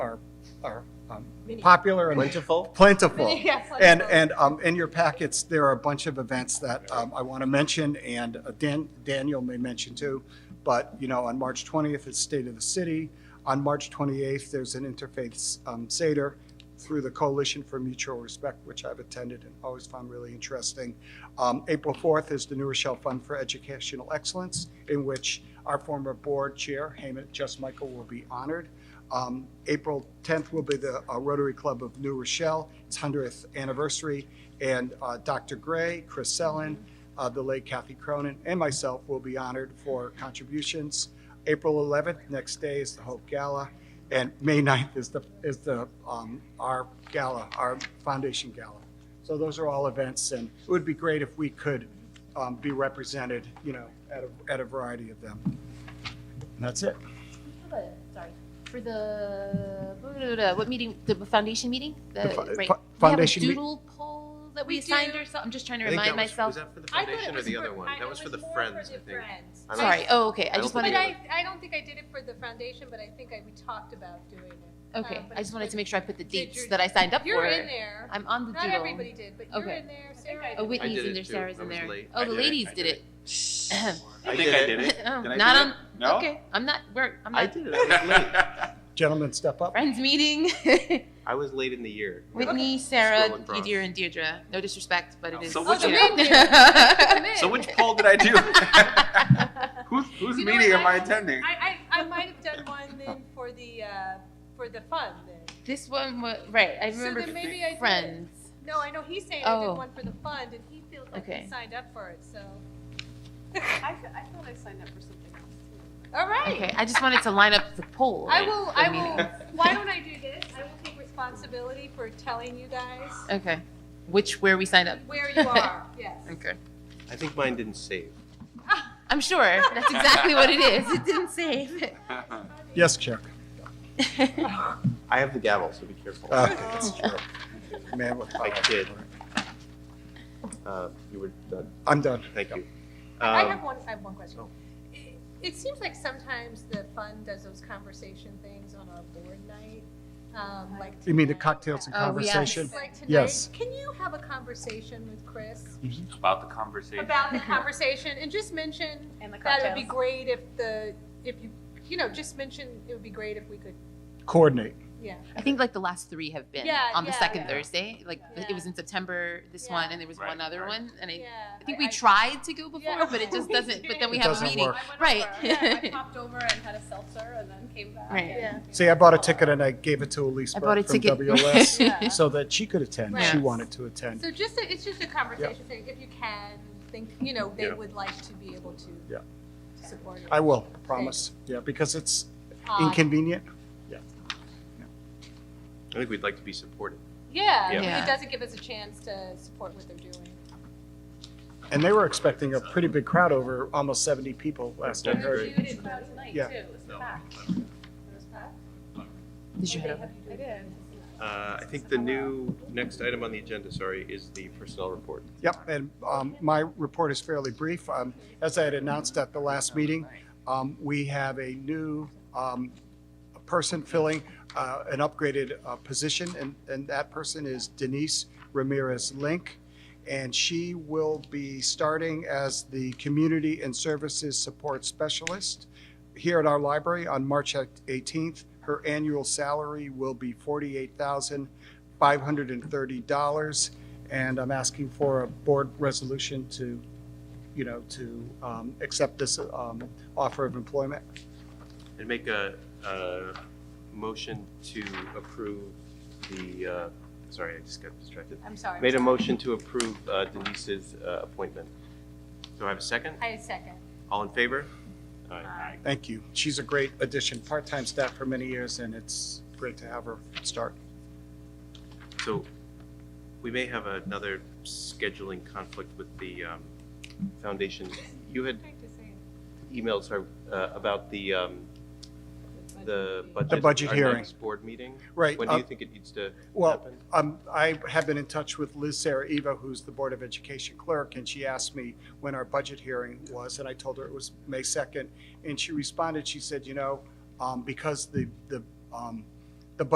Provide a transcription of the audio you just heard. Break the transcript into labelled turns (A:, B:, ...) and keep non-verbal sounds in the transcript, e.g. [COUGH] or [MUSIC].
A: are um,
B: Many.
A: popular and
C: Plentiful?
A: plentiful.
D: [LAUGHS]
B: Many, yeah,
A: And,
B: plentiful.
A: and um, in your packets, there are a bunch of events that um, I want to mention, and uh, Dan, Daniel may mention too. But, you know, on March 20th, it's State of the City. On March 28th, there's an interfaith um, Seder through the Coalition for Mutual Respect, which I've attended and always found really interesting. Um, April 4th is the New Rochelle Fund for Educational Excellence, in which our former board chair, Hamid Just Michael, will be honored. Um, April 10th will be the uh, Rotary Club of New Rochelle, its 100th anniversary, and uh, Dr. Gray, Chris Sellen, uh, the late Kathy Cronin, and myself will be honored for contributions. April 11th, next day, is the Hope Gala, and May 9th is the, is the, um, our gala, our foundation gala. So those are all events, and it would be great if we could um, be represented, you know, at a, at a variety of them. And that's it.
B: For the- Sorry, for the, blah, blah, blah, what meeting, the foundation meeting? The,
A: The fo-
B: right.
A: fo- foundation
B: We
A: meet-
B: have a doodle poll that we
D: We
B: assigned
D: do.
B: ourselves, I'm just trying to
C: I think
B: remind
C: that was-
B: myself.
C: Was that for the
D: I thought it
C: foundation or
D: was
C: the
D: for-
C: other one?
D: I-
C: That
D: it
C: was for the
D: more
C: Friends, I
D: the
C: think.
D: Friends.
C: I don't-
B: Sorry, oh, okay, I
C: I
B: just
C: don't
D: But
B: wanted,
C: think
D: I, I don't think I did it for the foundation, but I think I, we talked about doing it.
B: okay,
D: Um, but
B: I just wanted to make sure I put the
D: Did
B: dates
D: your-
B: that I signed up for.
D: You're in there.
B: I'm on the
D: Not
B: doodle.
D: everybody did, but you're
B: Okay.
D: in there, Sarah.
B: Oh,
C: I
B: Whitney's
C: did
B: in
C: it
B: there,
C: too.
B: Sarah's
C: I
B: in
C: was
B: there.
C: late.
B: Oh,
C: I
B: the
C: did it.
B: ladies
C: I
B: did
C: did
B: it.
E: I think I did it.
B: [LAUGHS]
E: [LAUGHS]
B: Oh,
E: Did I
B: Not
E: do
B: on,
E: it? No?
B: okay, I'm not, we're, I'm
C: I
B: not,
C: did it. I was late.
A: [LAUGHS] Gentlemen, step up.
B: friends meeting. [LAUGHS]
C: I was late in the year.
B: Whitney, Sarah,
E: Scroll across.
B: Deidre, and Deirdre. No disrespect, but it is.
E: So
D: Oh,
E: which
D: the
B: you
E: one?
D: men
B: know.
D: did.
B: [LAUGHS]
D: The men.
E: So which poll did I do? Who's, whose
D: You know
E: meeting
D: what?
E: am I attending?
D: I, I, I might have done one then for the, uh, for the fun then.
B: [LAUGHS] This one was right. I
D: So
B: remember
D: then maybe I did.
B: friends.
D: No, I know he's saying I
B: Oh.
D: did one for the fund and he feels like
B: Okay.
D: he signed up for it, so.
F: I, fe- I thought I signed up for something else.
D: All
B: Okay,
D: right.
B: I just wanted to line up the poll.
D: I will,
B: for
D: I
B: meeting.
D: will, [LAUGHS] why don't I do this? I will take responsibility for telling you guys
B: Okay, which where we signed up.
D: where you are, yes.
B: [LAUGHS] Okay,
C: I think mine didn't save.
B: I'm sure that's exactly what it is. It didn't save.
D: [LAUGHS]
E: [LAUGHS]
A: Yes, Chuck.
C: I have the gavel, so be careful.
A: Okay, that's true. Man with
C: I
A: power.
C: kid. Uh, you were done.
A: I'm done.
C: Thank you.
D: I have
C: Um,
D: one, I have one question. It- It seems like sometimes the fund does those conversation things on our board night, um, like.
A: You mean the
D: tonight.
A: cocktails and
B: Oh, yes.
A: conversation?
D: Like tonight,
A: Yes.
D: can you have a conversation with Chris
E: About the conversation.
D: about the conversation and just mention
B: [LAUGHS]
F: And the
D: that it would be great if the, if you, you know, just mention it would be great if we could,
A: Coordinate.
D: yeah.
B: I think like the last three have been
D: Yeah,
B: on the
D: yeah,
B: second
D: yeah.
B: Thursday. Like
D: Yeah.
B: it was in September. This
D: Yeah.
B: one, and there was one
E: Right,
B: other
E: right.
B: one, and I.
D: Yeah.
B: I think we tried to go before,
D: Yeah.
B: but it just
D: [LAUGHS] We
B: doesn't. But then we
A: It
B: have a
A: doesn't
B: meeting,
A: work.
B: right?
F: Yeah,
B: [LAUGHS]
F: I popped over and had a seltzer and then came back.
B: Right.
F: and-
D: Yeah.
A: See, I bought a ticket and I gave it to Elise
B: I bought a
A: Burke from
B: ticket. [LAUGHS]
A: WLS
D: Yeah.
A: so that she could attend. She
B: Right.
A: wanted to attend.
D: So just, a- it's just a conversation thing, if you can, think, you know, they
C: Yeah.
D: would like to be able to.
A: Yeah.
D: to Support it. Uh,
A: I will, promise. Yeah, because it's
D: Odd.
A: inconvenient.
C: I think we'd like to be supported.
D: Yeah,
C: Yeah.
D: I mean,
B: Yeah.
D: it doesn't give us a chance to support what they're doing.
A: And they were expecting a pretty big crowd over almost 70 people last I
C: That's
A: heard.
C: great.
F: You did that tonight too,
A: Yeah.
F: it was packed. It was packed.
B: Did you head up?
F: I did.
C: Uh, I think the new, next item on the agenda, sorry, is the personnel report.
A: Yep, and um, my report is fairly brief. Um, As I had announced at the last meeting, um, we have a new um, person filling uh, an upgraded uh, position, and- and that person is Denise Ramirez Link. And she will be starting as the Community and Services Support Specialist here at our library on March 18th. Her annual salary will be $48,530 and I'm asking for a board resolution to, you know, to um, accept this um, offer of employment.
C: And make a, a motion to approve the, uh, sorry, I just got distracted.
D: I'm sorry.
C: Made a motion to approve uh, Denise's uh, appointment. Do I have a second?
D: I second.
C: All in favor?
A: Thank you. She's a great addition, part-time staff for many years, and it's great to have her start.
C: So we may have another scheduling conflict with the um, foundation. You had emailed sorry, uh, about the, um, the budget.
A: The budget hearing.
C: Our next board meeting.
A: Right,
C: When do you
A: uh,
C: think it needs to
A: Well,
C: happen?
A: um, I have been in touch with Liz Saraiva, who's the Board of Education clerk, and she asked me when our budget hearing was, and I told her it was May 2nd. And she responded, she said, you know, um, because the, the, um,